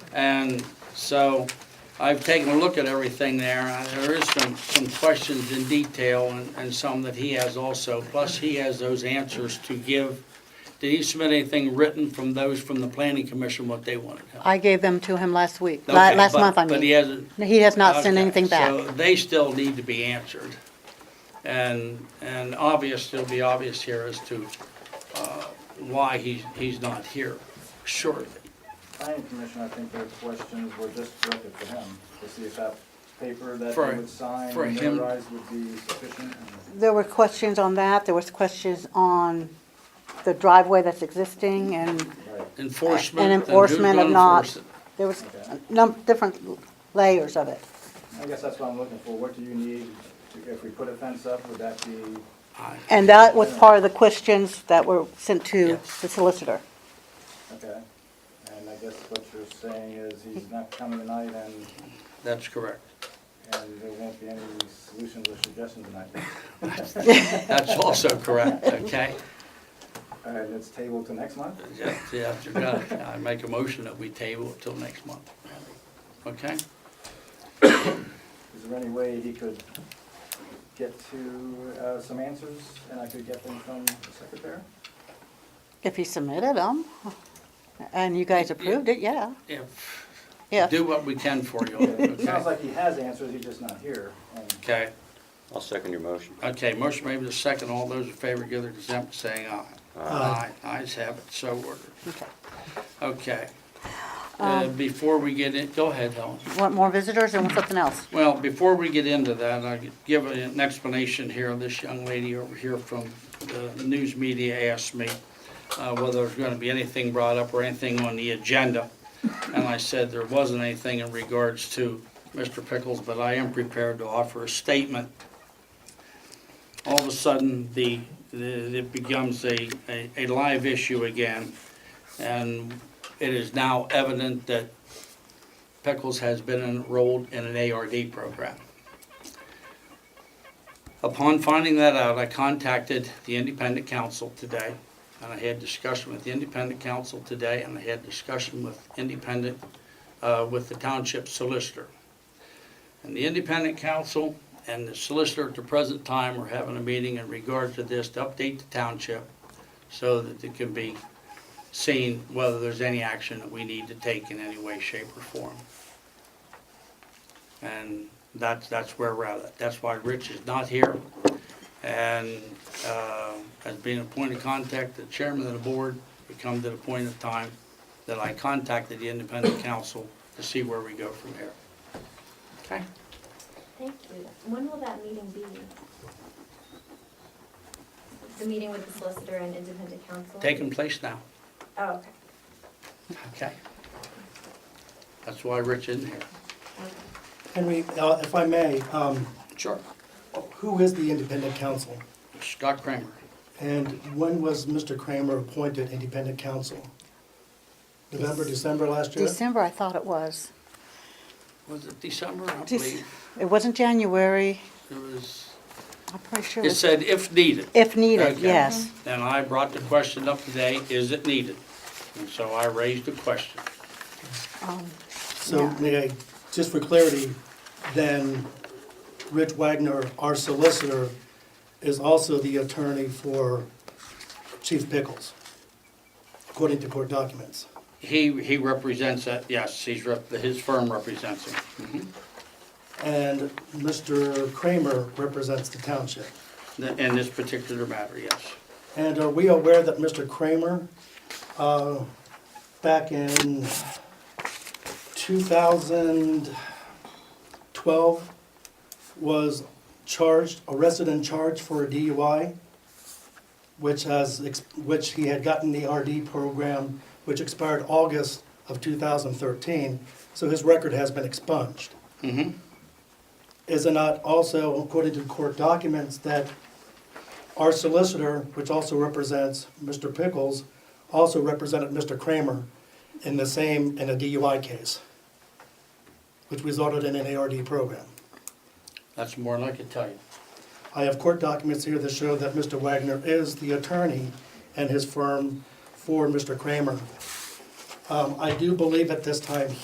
And so I've taken a look at everything there. and There is some, some questions in detail and, and some that he has also. Plus, he has those answers to give. Did he submit anything written from those from the planning commission, what they wanted? I gave them to him last week, Uh, la- Okay, last but- month, I But he mean. hasn't, He has not sent Okay, anything back. So they still need to be answered. And, and obvious, it'll be obvious here as to uh, why he's, he's not here shortly. planning commission, I think their questions were just directed to him, to see if that paper that For- he would sign, for him. notarized would be sufficient. and- There were questions on that, there was questions on the driveway that's existing, and Right, Enforcement. And who's enforcement of gonna not- enforce it? there was Okay. a num, different layers of it. I guess that's what I'm looking for, what do you need, to- if we put a fence up, would that be, I- And that was part of the questions that were sent to Yes. the solicitor. okay? And I guess what you're saying is he's not coming tonight and, That's correct. and there won't be any solutions or suggestions tonight. That's also correct, okay? And it's tabled to next month? Yeah, yeah, you got it. I make a motion that we table it till next month. Okay? Is there any way he could get to, uh, some answers, and I could get them from the secretary? If he submitted them, and you guys approved it, yeah, If, yeah. do what we can for you, It sounds okay? like he has answers, he's just not here. Um, and- Okay? I'll second your motion. Okay, motion made with a second. All those in favor give their consent by saying aye. Aye. Ayes have it, so ordered. Okay. Um, Okay. Uh, Before we get in, go ahead, Helen. Want more visitors or want something else? Well, before we get into that, I could give an explanation here. of This young lady over here from the news media asked me uh, whether there's going to be anything brought up or anything on the agenda. And I said there wasn't anything in regards to Mr. Pickles, but I am prepared to offer a statement. All of a sudden, the, the- it becomes a, a- a live issue again. And it is now evident that Pickles has been enrolled in an ARD program. Upon finding that out, I contacted the independent council today, and I had discussion with the independent council today, and I had discussion with independent, uh, with the township solicitor. And the independent council and the solicitor at the present time are having a meeting in regard to this to update the township so that it can be seen whether there's any action that we need to take in any way, shape, or form. And that's, that's where we're at. That's why Rich is not here. And uh, as being a point of contact, the chairman of the board, we come to the point of time that I contacted the independent council to see where we go from here. Okay? Thank you. When will that meeting be? The meeting with the solicitor and independent counsel? Taking place now, Oh, okay, okay? That's why Rich isn't here. okay. Henry, uh, if I may, um, Sure. who is the independent counsel? Scott Kramer, And when was Mr. Kramer appointed independent counsel? November, December last year? December, I thought it was. was it December, I Dec- believe? It wasn't January, It was, I'm pretty sure it it was, said if needed. if needed, Okay. yes. And I brought the question up today, is it needed? And so I raised the question. Um, So, Yeah. may I, just for clarity, then Rich Wagner, our solicitor, is also the attorney for Chief Pickles, according to court documents. He, he represents that, yes, he's, rep- his firm represents him. Mhm. And Mr. Kramer represents the township. In this particular matter, yes. And are we aware that Mr. Kramer, uh, back in 2012, was charged, arrested and charged for a DUI, which has, ex- which he had gotten the RD program, which expired August of 2013, so his record has been expunged. Mhm. Is it not also, according to court documents, that our solicitor, which also represents Mr. Pickles, also represented Mr. Kramer in the same, in a DUI case, which resulted in an ARD program. That's more than I could tell you. I have court documents here that show that Mr. Wagner is the attorney and his firm for Mr. Kramer. Um, I do believe at this time